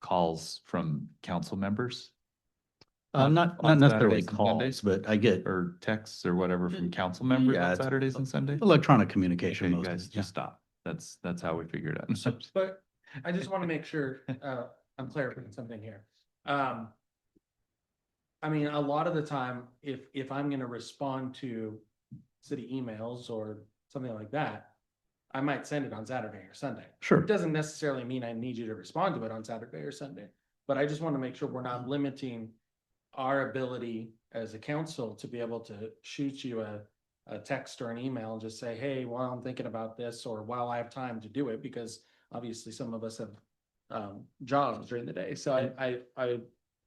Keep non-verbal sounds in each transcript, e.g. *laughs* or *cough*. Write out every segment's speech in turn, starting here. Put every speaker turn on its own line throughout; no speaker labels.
calls from council members
Uh,
On-
not,
on
not necessarily
Saturdays and Sundays?
calls, but I get
or texts or whatever from council members
Mm, yeah,
on
it's-
Saturdays and Sundays?
electronic
Okay,
communication
you
mostly.
guys
yeah.
just stop. That's, that's how we figured it
*laughs*
out. *laughs*
But I just want to make sure, uh, I'm clarifying something here. Um. I mean, a lot of the time, if, if I'm gonna respond to city emails or something like that. I might send it on Saturday or Sunday.
Sure.
It doesn't necessarily mean I need you to respond to it on Saturday or Sunday, but I just want to make sure we're not limiting our ability as a council to be able to shoot you a, a text or an email and just say, hey, while I'm thinking about this, or while I have time to do it, because obviously some of us have um, jobs during the day. So I, I, I,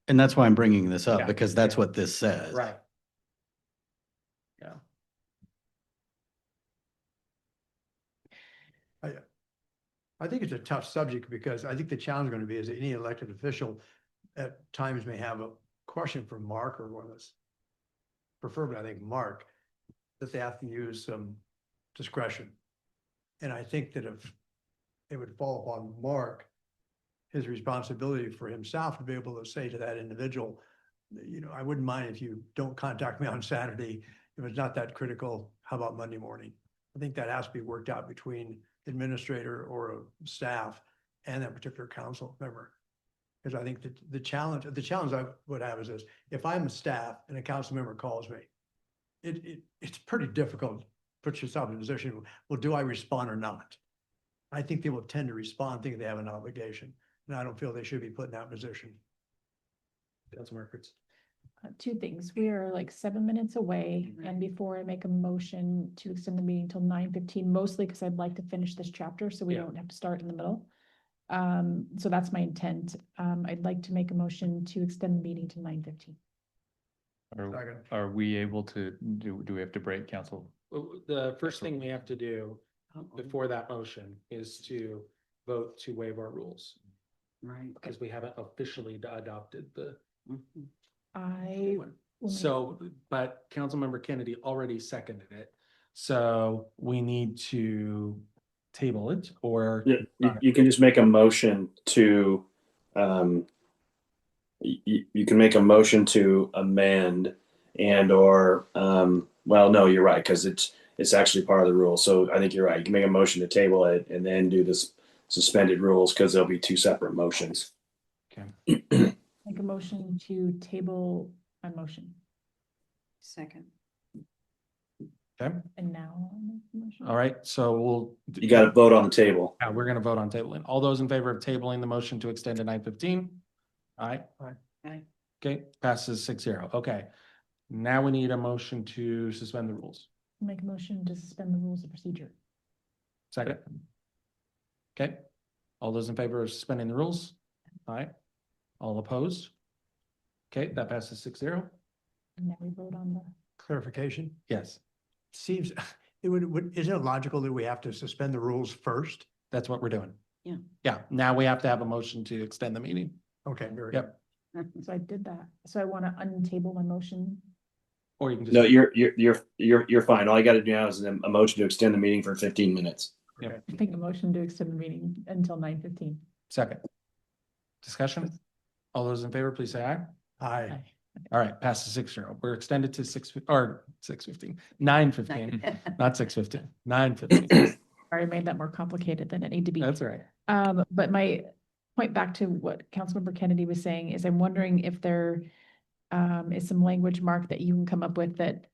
And that's why I'm bringing this
Yeah,
up because that's
yeah.
what this says.
right.
I think it's a tough subject because I think the challenge going to be is that any elected official at times may have a question for Mark or one of us. Preferably, I think, Mark, that they have to use some discretion. And I think that if it would fall upon Mark, his responsibility for himself to be able to say to that individual, you know, I wouldn't mind if you don't contact me on Saturday. If it's not that critical, how about Monday morning? I think that has to be worked out between administrator or a staff and that particular council member. Because I think that the challenge, the challenge I would have is this, if I'm a staff and a council member calls me, it, it, it's pretty difficult, to put yourself in a position, well, do I respond or not? I think people tend to respond thinking they have an obligation, and I don't feel they should be put in that position.
Councilmember Fritz.
uh, two things. We are like seven minutes away
Mm-hmm.
and before I make a motion to extend the meeting till nine fifteen, mostly because I'd like to finish this chapter so we
Yeah.
don't have to start in the middle. Um, so that's my intent. Um, I'd like to make a motion to extend the meeting to nine fifteen.
Are,
Second.
are we able to, do, do we have to break council?
The first thing we have to do before that motion is to vote to waive our rules. Right. Because we haven't officially d- adopted the.
I. will make-
So, but Councilmember Kennedy already seconded it. So we need to table it or
Yeah, you, you can just make a motion to, um, you, you can make a motion to amend and or, um, well, no, you're right, because it's, it's actually part of the rule. So I think you're right. You can make a motion to table it and then do this suspended rules because there'll be two separate motions.
Make a motion to table my motion.
Second.
Okay,
And now. I'll make the motion.
all right, so we'll.
You got to vote on the table.
Yeah, Uh, we're gonna vote on tabling. All those in favor of tabling the motion to extend to nine fifteen? Aye.
Aye.
Aye.
Okay, passes six zero. Okay. Now we need a motion to suspend the rules.
Make a motion to suspend the rules of procedure.
Second. Okay, all those in favor of suspending the rules? Aye. All opposed? Okay, that passes six zero.
And now we vote on the.
Clarification,
Yes,
seems, *laughs* it would, would, isn't it logical that we have to suspend the rules first?
that's what we're doing.
Yeah.
Yeah, now we have to have a motion to extend the meeting.
Okay, very.
Yep.
*laughs* So I did that. So I want to untable my motion.
Or you can just.
No, you're, you're, you're, you're, you're fine. All you got to do now is a motion to extend the meeting for 15 minutes.
Make a motion to extend the meeting until nine fifteen.
Second. Discussion? All those in favor, please say aye.
Aye.
All right, passes six zero. We're extended to six, fif- or six fifteen, nine fifteen, not six fifteen, nine fifteen.
Sorry, I made that more complicated than it need to be.
That's all right.
Um, but my point back to what Councilmember Kennedy was saying is I'm wondering if there um, is some language, Mark, that you can come up with that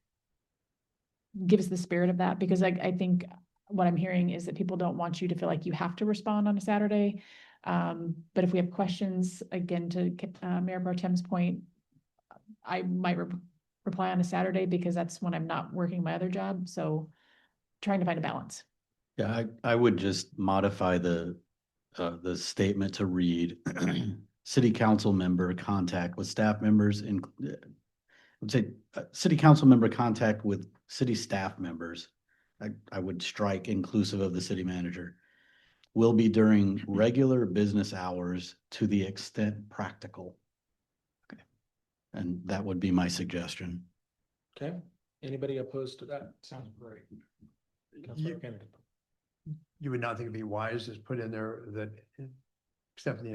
gives the spirit of that, because I, I think what I'm hearing is that people don't want you to feel like you have to respond on a Saturday. Um, but if we have questions, again, to K- uh, Mayor Bartem's point, I might re- reply on a Saturday because that's when I'm not working my other job, so trying to find a balance.
Yeah, I, I would just modify the, uh, the statement to read, *clears throat* city council member contact with staff members in, I would say, uh, city council member contact with city staff members. I, I would strike inclusive of the city manager. Will be during regular business hours to the extent practical. Okay. And that would be my suggestion.
Okay, anybody opposed to that? Sounds great. Councilor Kennedy.
You would not think it'd be wise to put in there that, except in the